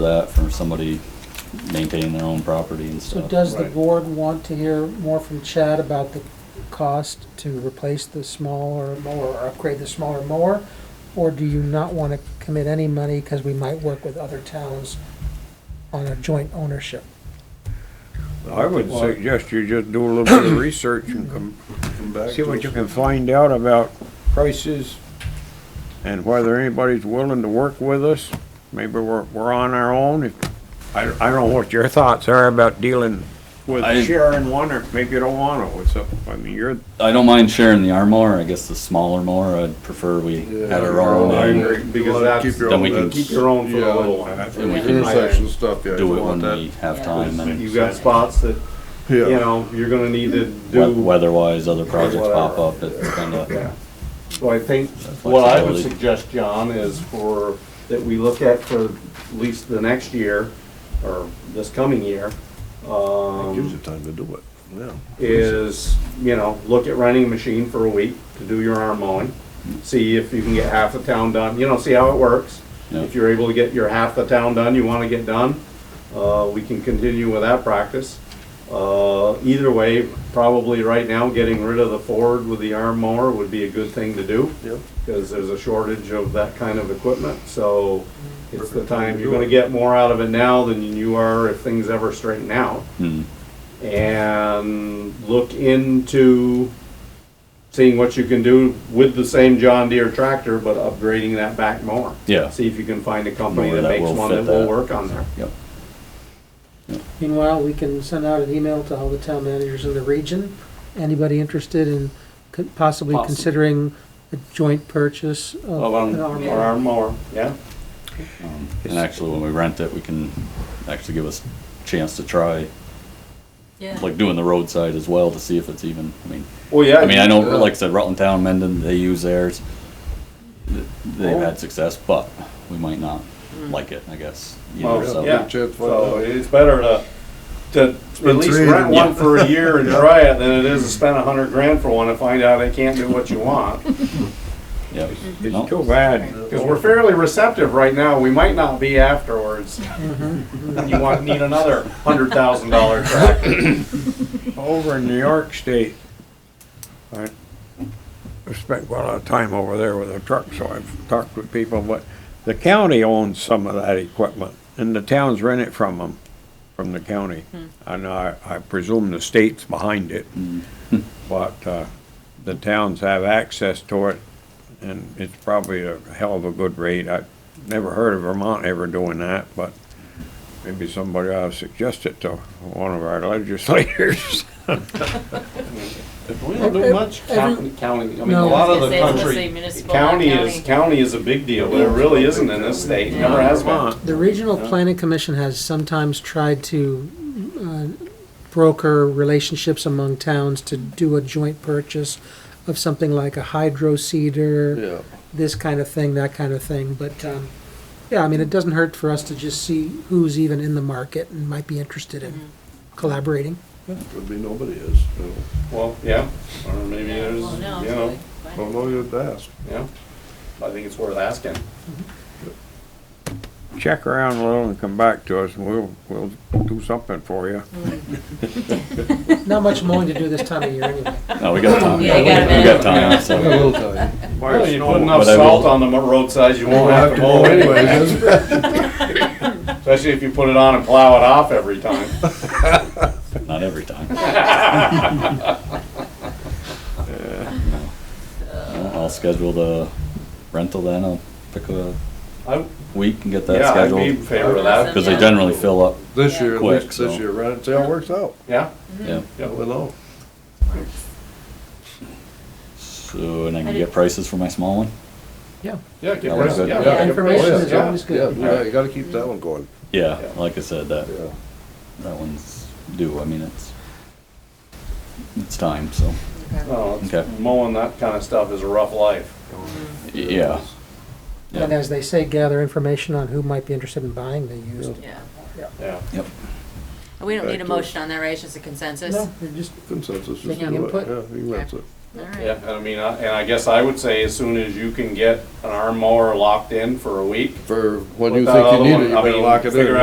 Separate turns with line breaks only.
that for somebody maintaining their own property and
So
stuff.
does the
Right.
board want to hear more from Chad about the cost to replace the smaller mower or upgrade the smaller mower? Or do you not want to commit any money because we might work with other towns on a joint ownership?
I would suggest you just do a little bit of research and come,
Come back
see
to
what
us.
you can find out about prices and whether anybody's willing to work with us. Maybe we're, we're on our own. If- I, I don't know what your thoughts are about dealing with
I-
sharing one, or maybe you don't want to, what's up, I mean, you're,
I don't mind sharing the arm mower, I guess the smaller mower, I'd prefer we had our own.
I
and
agree,
You
Because
wanna
that's.
keep your
Then we own, can
keep your own for the
yeah.
little
That's
one.
what we
Yeah.
do.
Intersection stuff, yeah.
Do
you
it
want
when
that.
we have time and
You got spots that, you
Yeah,
know, you're gonna need to
we-
do.
weather-wise, other projects pop
Whatever.
up, it's kinda,
Yeah. So I think
Flexibility.
what I would suggest, John, is for, that we look at for at least the next year, or this coming year,
It gives you
um,
time to do it, yeah.
is, you know, look at renting a machine for a week to do your arm mowing. See if you can get half the town done, you know, see how it works.
Yeah.
If you're able to get your half the town done you wanna get done, uh, we can continue with that practice. Uh, either way, probably right now, getting rid of the Ford with the arm mower would be a good thing to do.
Yep.
Cause there's a shortage of that kind of equipment, so it's the time, you're gonna get more out of it now than you are if things ever straighten out
hmm,
and look into seeing what you can do with the same John Deere tractor, but upgrading that back more.
Yeah.
See if you can find a company
Mower
that
that
makes
will
one
fit
that will
that.
work on there.
yep.
Meanwhile, we can send out an email to all the town managers in the region. Anybody interested in co- possibly
Possibly.
considering a joint purchase of an arm
Or
mower?
arm mower, yeah.
Um, And actually, when we rent it, we can actually give us a chance to try,
Yeah.
like doing the roadside as well to see if it's even, I mean,
Well, yeah.
I mean, I know, like I said, Rutland Town, Mendon, they use theirs. Th- They've
Oh.
had success, but we might not like it, I guess. you know,
Well,
so-
yeah,
Chance, why
so
not?
it's better to, to at least
three
rent
and-
one for a year and try it than it is to spend a hundred grand for one and find out they can't do what you want.
Yeah. No.
it's too bad.
Because we're fairly receptive right now, we might not be afterwards. You want, need another hundred thousand dollar tractor.
Over in New York State, I spent quite a lot of time over there with a truck, so I've talked with people, but the county owns some of that equipment, and the towns rent it from them, from the county. And I, I presume the state's behind it, but, uh, the towns have access to it, and it's probably a hell of a good rate. I've never heard of Vermont ever doing that, but maybe somebody ought to suggest it to one of our legislators.
We don't do much county, county, I mean, a
No.
lot
I was
of the
gonna say, it's gonna say
country,
municipal, not
county is,
county.
county is a big deal, but it really isn't in this state, never has been.
Vermont.
The Regional Planning Commission has sometimes tried to uh, broker relationships among towns to do a joint purchase of something like a hydro seeder,
Yeah.
this kind of thing, that kind of thing, but, um, yeah, I mean, it doesn't hurt for us to just see who's even in the market and might be interested in collaborating.
Could be nobody is, you know.
Well, yeah, or maybe
Yeah,
there's, you
well, Oh, no,
know,
so
Don't know you have to ask.
yeah. I think it's worth asking.
check around a little and come back to us, and we'll, we'll do something for you.
Not much mowing to do this time of year anyway.
No, we got time.
Yeah, you
We
got a
got
minute.
time, so.
Well, you put enough
But I will-
salt on the mo- roadside, you
Won't
won't have to mow anyway,
anyways.
especially if you put it on and plow it off every time.
Not every time. No, I'll schedule the rental then, I'll pick a
I-
week and get that
Yeah, I'd be in
scheduled.
favor of that.
Cause they generally fill up,
This year, at
Quick,
least
so.
this year, right, see how it works out,
Yeah,
Mm-hmm.
yeah.
yeah.
we know.
So, and I can get prices for my small one?
Yeah.
Yeah, get
Yeah, like
rid of it.
I said,
Yeah,
yeah,
get rid of it.
information
Oh, yeah,
is
Yeah.
always good.
Yeah, yeah, you gotta keep that one going,
Yeah,
Yeah.
like I said, that,
yeah.
that one's due, I mean, it's, it's time, so,
No, it's-
Okay.
mowing that kind of stuff is a rough life.
yeah. Yeah.
And as they say, gather information on who might be interested in buying the used.
Yeah.
Yeah.
Yep.
We don't need a
Back to-
motion on that, right? It's just a consensus?
No, you're just
Consensus, just
Yeah.
do it,
Input.
yeah, you can answer.
all
Yeah,
right.
and I mean, I- and I guess I would say as soon as you can get an arm mower locked in for a week,
For when
Put
you
that
think you
other
need
one-
it, you
I
better
mean,
lock it in.
figure